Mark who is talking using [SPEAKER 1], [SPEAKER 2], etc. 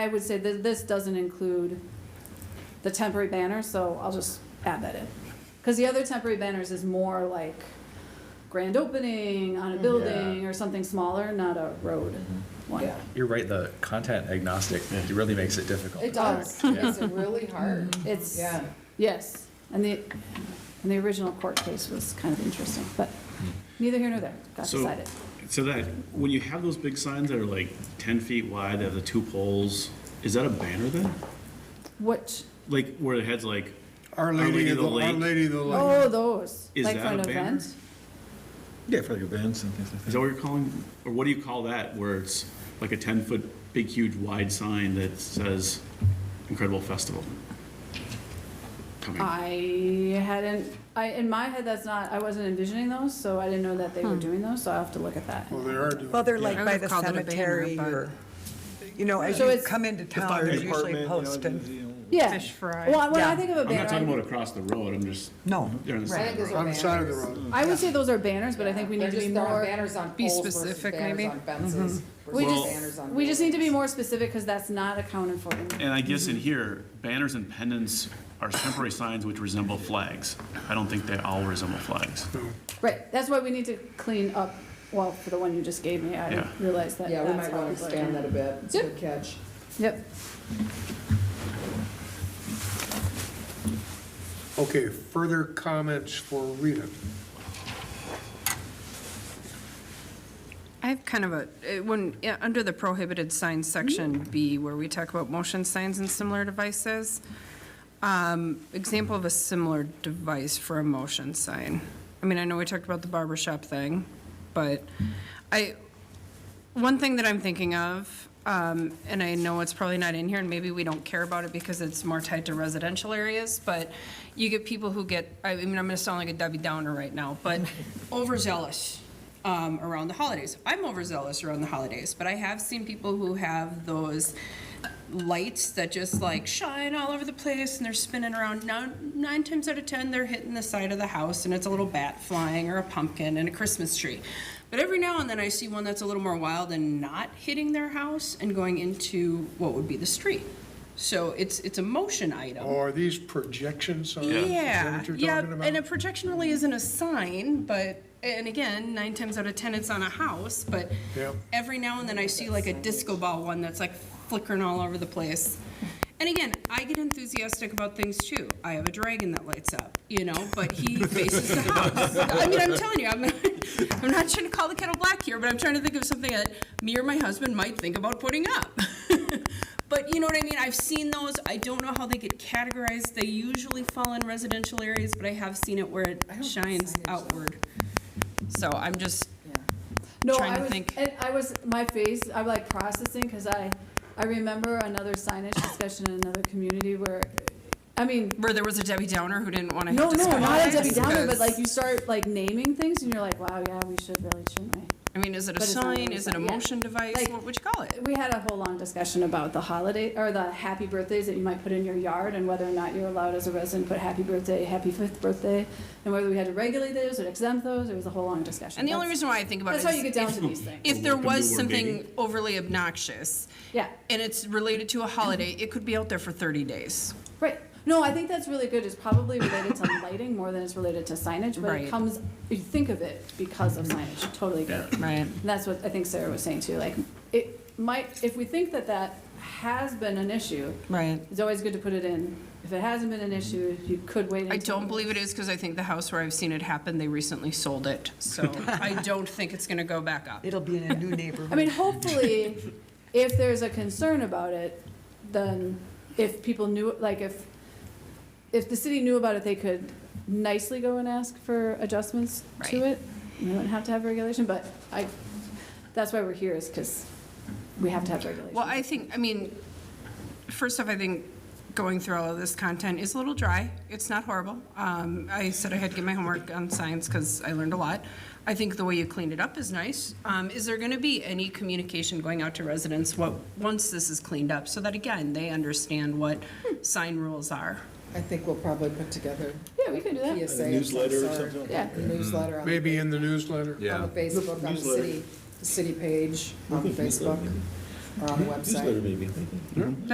[SPEAKER 1] I would say that this doesn't include the temporary banners, so I'll just add that in. Because the other temporary banners is more like grand opening on a building
[SPEAKER 2] Mm-hmm. Yeah. Mm-hmm.
[SPEAKER 1] or something smaller, not a road one.
[SPEAKER 2] Yeah.
[SPEAKER 3] You're right, the content agnostic, it really makes it difficult.
[SPEAKER 2] It does. It's really hard.
[SPEAKER 1] It's,
[SPEAKER 2] Yeah.
[SPEAKER 1] yes, and the, and the original court case was kind of interesting, but
[SPEAKER 2] Hmm.
[SPEAKER 1] neither here nor there, got
[SPEAKER 4] So-
[SPEAKER 1] decided.
[SPEAKER 4] So that, when you have those big signs that are like ten feet wide, that have the two poles, is that a banner then?
[SPEAKER 1] What,
[SPEAKER 4] Like where the head's like,
[SPEAKER 5] Our
[SPEAKER 4] Lady
[SPEAKER 5] Lady
[SPEAKER 4] of
[SPEAKER 5] of the,
[SPEAKER 4] the Lake.
[SPEAKER 5] Our Lady of the Lake.
[SPEAKER 1] oh, those,
[SPEAKER 4] Is
[SPEAKER 1] like for
[SPEAKER 4] that
[SPEAKER 1] an
[SPEAKER 4] a banner?
[SPEAKER 1] event?
[SPEAKER 3] Yeah, for like events and things like
[SPEAKER 4] is that what you're calling, or what do you call that, where it's like a ten foot, big, huge, wide sign that says Incredible Festival?
[SPEAKER 1] Uh,
[SPEAKER 4] Coming.
[SPEAKER 1] I hadn't, I, in my head, that's not, I wasn't envisioning those, so I didn't know that
[SPEAKER 2] Hmm.
[SPEAKER 1] they were doing those, so I'll have to look at that.
[SPEAKER 5] Well, they are doing.
[SPEAKER 6] Well, they're
[SPEAKER 5] yeah.
[SPEAKER 6] like
[SPEAKER 7] I
[SPEAKER 6] by
[SPEAKER 7] would've
[SPEAKER 6] the
[SPEAKER 7] called it a banner,
[SPEAKER 6] cemetery
[SPEAKER 7] but-
[SPEAKER 6] or, you know, as
[SPEAKER 1] So
[SPEAKER 6] you
[SPEAKER 1] it's-
[SPEAKER 6] come into town, they're usually posted.
[SPEAKER 1] Yeah.
[SPEAKER 7] Fish fry.
[SPEAKER 1] Well, when I
[SPEAKER 6] Yeah.
[SPEAKER 1] think of a
[SPEAKER 4] I'm not talking
[SPEAKER 1] banner,
[SPEAKER 4] about across the road, I'm just,
[SPEAKER 6] No.
[SPEAKER 4] they're on the
[SPEAKER 2] I think
[SPEAKER 4] side.
[SPEAKER 2] those are
[SPEAKER 5] On the side of the
[SPEAKER 2] banners.
[SPEAKER 5] road.
[SPEAKER 1] I would say those are banners, but I think we
[SPEAKER 2] They're
[SPEAKER 1] need to be
[SPEAKER 2] just- there are
[SPEAKER 1] more,
[SPEAKER 2] Banners on
[SPEAKER 7] Be
[SPEAKER 2] poles versus
[SPEAKER 7] specific,
[SPEAKER 2] banners
[SPEAKER 7] maybe?
[SPEAKER 2] on fences.
[SPEAKER 1] Mm-hmm. we
[SPEAKER 2] versus
[SPEAKER 4] Well-
[SPEAKER 2] banners
[SPEAKER 1] just,
[SPEAKER 2] on
[SPEAKER 1] we just need to be
[SPEAKER 2] buildings.
[SPEAKER 1] more specific, because that's not accounted for. in-
[SPEAKER 4] And I guess in here, banners and pennants are temporary signs which resemble flags. I don't think they all resemble flags.
[SPEAKER 1] Right, that's why we need to clean up, well, for the one you just gave me, I
[SPEAKER 4] Yeah.
[SPEAKER 1] realized that.
[SPEAKER 2] Yeah, we
[SPEAKER 1] that's
[SPEAKER 2] might
[SPEAKER 1] how
[SPEAKER 2] want to
[SPEAKER 1] people are
[SPEAKER 2] expand that
[SPEAKER 1] doing
[SPEAKER 2] a
[SPEAKER 1] it.
[SPEAKER 2] bit. It's a good catch.
[SPEAKER 1] Yep,
[SPEAKER 5] Okay, further comments for Rita?
[SPEAKER 7] I have kind of a, it- when, yeah, under the prohibited signs section B, where we talk about motion signs and similar devices, um, example of a similar device for a motion sign. I mean, I know we talked about the barber shop thing, but I, one thing that I'm thinking of, um, and I know it's probably not in here, and maybe we don't care about it because it's more tied to residential areas, but you get people who get, I mean, I'm gonna sound like a Debbie Downer right now, but overzealous um, around the holidays. I'm overzealous around the holidays, but I have seen people who have those lights that just like shine all over the place and they're spinning around. Now, nine times out of ten, they're hitting the side of the house and it's a little bat flying or a pumpkin and a Christmas tree. But every now and then, I see one that's a little more wild and not hitting their house and going into what would be the street. So it's it's a motion item.
[SPEAKER 5] Oh, are these projection signs? uh, Is that
[SPEAKER 7] Yeah,
[SPEAKER 5] what you're
[SPEAKER 7] yeah,
[SPEAKER 5] talking about?
[SPEAKER 7] and a projection really isn't a sign, but, and again, nine times out of ten, it's on a house, but
[SPEAKER 5] Yep.
[SPEAKER 7] every now and then I see like a disco ball one that's like flickering all over the place. And again, I get enthusiastic about things too. I have a dragon that lights up, you know, but he faces the house. I mean, I'm telling you, I'm, I'm not trying to call the kettle black here, but I'm trying to think of something that me or my husband might think about putting up. But you know what I mean? I've seen those. I don't know how they get categorized. They usually fall in residential areas, but I have seen it where it
[SPEAKER 2] don't think
[SPEAKER 7] shines
[SPEAKER 2] signage-
[SPEAKER 7] outward. So I'm just,
[SPEAKER 1] no,
[SPEAKER 7] Trying
[SPEAKER 1] I
[SPEAKER 7] to
[SPEAKER 1] was,
[SPEAKER 7] think.
[SPEAKER 1] and I was, my face, I'm like processing, because I, I remember another signage discussion in another community where, I mean,
[SPEAKER 7] where there was a Debbie Downer who didn't want to
[SPEAKER 1] No,
[SPEAKER 7] have
[SPEAKER 1] no, not a
[SPEAKER 7] discussions,
[SPEAKER 1] Debbie Downer, but
[SPEAKER 7] because,
[SPEAKER 1] like you start like naming things and you're like, wow, yeah, we should really, shouldn't we?
[SPEAKER 7] I mean, is it a
[SPEAKER 1] but it's not
[SPEAKER 7] sign?
[SPEAKER 1] really
[SPEAKER 7] Is it a
[SPEAKER 1] sign, yeah.
[SPEAKER 7] motion device?
[SPEAKER 1] Like-
[SPEAKER 7] What would you call it?
[SPEAKER 1] We had a whole long discussion about the holiday, or the happy birthdays that you might put in your yard and whether or not you're allowed as a resident to put happy birthday, happy fifth birthday, and whether we had to regulate those or exempt those, it was a whole long discussion.
[SPEAKER 7] And the only
[SPEAKER 1] That's-
[SPEAKER 7] reason why I think about it
[SPEAKER 1] That's
[SPEAKER 7] is.
[SPEAKER 1] how you get down
[SPEAKER 7] if-
[SPEAKER 1] to these things.
[SPEAKER 7] If there
[SPEAKER 4] Welcome to
[SPEAKER 7] was
[SPEAKER 4] our
[SPEAKER 7] something
[SPEAKER 4] meeting.
[SPEAKER 7] overly obnoxious.
[SPEAKER 1] Yeah.
[SPEAKER 7] And it's related to a holiday, it could be out there for thirty days.
[SPEAKER 1] Right. No, I think that's really good. It's probably related to lighting more than it's related to signage, but it
[SPEAKER 7] Right.
[SPEAKER 1] comes, you think of it because of signage. Totally get it.
[SPEAKER 7] Right.
[SPEAKER 1] And that's what I think Sarah was saying too, like, it might, if we think that that has been an issue,
[SPEAKER 7] Right.
[SPEAKER 1] it's always good to put it in. If it hasn't been an issue, you could wait until.
[SPEAKER 7] I don't believe it is because I think the house where I've seen it happen, they recently sold it. So I don't think it's going to go back up.
[SPEAKER 6] It'll be in a new
[SPEAKER 1] I
[SPEAKER 6] neighborhood.
[SPEAKER 1] mean, hopefully, if there's a concern about it, then if people knew, like, if, if the city knew about it, they could nicely go and ask for adjustments to
[SPEAKER 7] Right.
[SPEAKER 1] it. We wouldn't have to have regulation, but I, that's why we're here, is because we have to have regulation.
[SPEAKER 7] Well, I think, I mean, first off, I think going through all of this content is a little dry. It's not horrible. Um, I said I had to get my homework on science because I learned a lot. I think the way you cleaned it up is nice. Um, is there going to be any communication going out to residents what, once this is cleaned up? So that again, they understand what sign rules are.
[SPEAKER 2] I think we'll probably put together
[SPEAKER 1] Yeah, we could do
[SPEAKER 2] a
[SPEAKER 1] that,
[SPEAKER 2] PSA. Newsletter or something?
[SPEAKER 1] yeah.
[SPEAKER 2] Newsletter on
[SPEAKER 5] Maybe in the newsletter?
[SPEAKER 2] on the Facebook, on the city, the city page, on Facebook.
[SPEAKER 8] or on the website.
[SPEAKER 2] maybe.